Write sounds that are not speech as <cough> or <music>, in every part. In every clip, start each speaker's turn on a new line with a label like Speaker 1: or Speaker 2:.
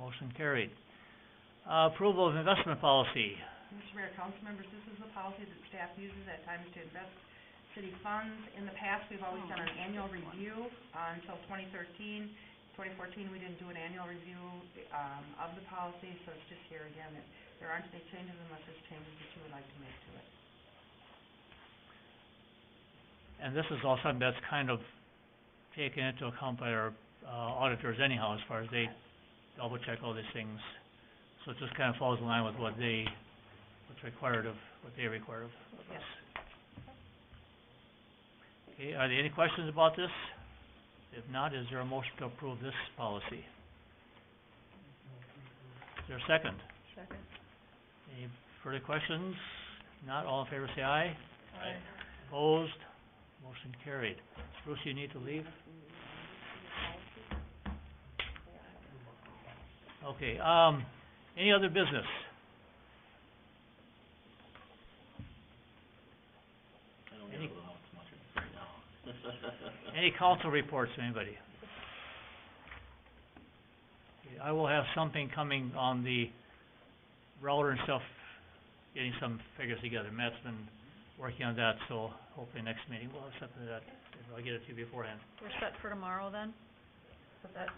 Speaker 1: Motion carried. Uh, approval of investment policy.
Speaker 2: Mr. Mayor, council members, this is the policy that staff uses at times to invest city funds. In the past, we've always done an annual review uh, until 2013. 2014, we didn't do an annual review um, of the policy, so it's just here again. that There aren't any changes unless there's changes that you would like to make to it.
Speaker 1: And this is all something that's kind of taken into account by our, uh, auditors anyhow, as far as they double check all these things. So it just kind of falls in line with what they, what's required of, what they require of of us. Okay, are there any questions about this? If not, is there a motion to approve this policy? Is there a second?
Speaker 2: Second.
Speaker 1: Any further questions? Not, all in favor say aye. Opposed, motion carried. Bruce, you need to leave? Okay, um, any other business?
Speaker 3: I don't
Speaker 1: Any-
Speaker 3: really know what's much right now. <laughs>
Speaker 1: Any council reports, anybody? Okay, I will have something coming on the router and stuff, getting some figures together. Matt's been working on that, so hopefully next meeting we'll have something that, I'll get it to you beforehand.
Speaker 4: We're set for tomorrow then,
Speaker 2: But that,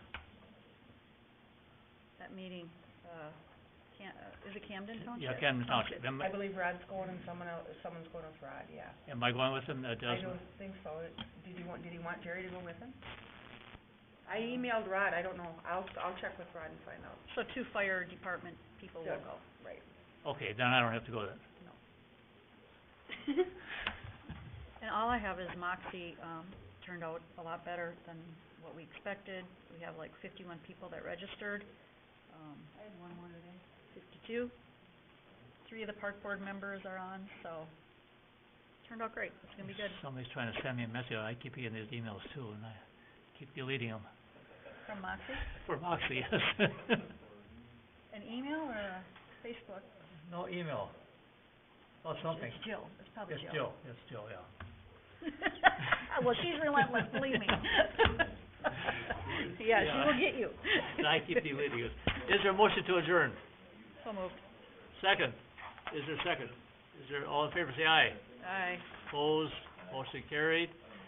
Speaker 4: that meeting, uh, Cam, uh, is it Camden Township?
Speaker 1: Yeah, Camden Township. Am
Speaker 2: I believe Rod's going and someone else, someone's going with Rod, yeah.
Speaker 1: Am I going with him? That
Speaker 2: I
Speaker 1: doesn't,
Speaker 2: don't think so. Did you want, did he want Jerry to go with him? I emailed Rod, I don't know. I'll, I'll check with Rod and find out.
Speaker 4: So two fire department people will
Speaker 2: Yeah.
Speaker 4: go.
Speaker 2: Right.
Speaker 1: okay, then I don't have to go then.
Speaker 4: And all I have is Moxie, um, turned out a lot better than what we expected. We have like fifty-one people that registered, um. I had one more today. Fifty-two. Three of the park board members are on, so turned out great. It's gonna be good
Speaker 1: Somebody's trying to send me a message, I keep getting these emails too, and I keep deleting them.
Speaker 4: from Moxie.
Speaker 1: <laughs> For Moxie, yes.
Speaker 4: An email or a Facebook?
Speaker 1: <laughs> No email. Oh, something.
Speaker 4: It's Jill. It's probably
Speaker 1: It's
Speaker 4: Jill.
Speaker 1: Jill, it's Jill, yeah.
Speaker 4: Well, she's relentless, believe me. Yeah, she will get you.
Speaker 1: And I keep deleting it. Is there a motion to adjourn?
Speaker 4: <laughs> So moved.
Speaker 1: Second. Is there a second? Is there, all in favor, say aye.
Speaker 4: Aye.
Speaker 1: Opposed, motion carried.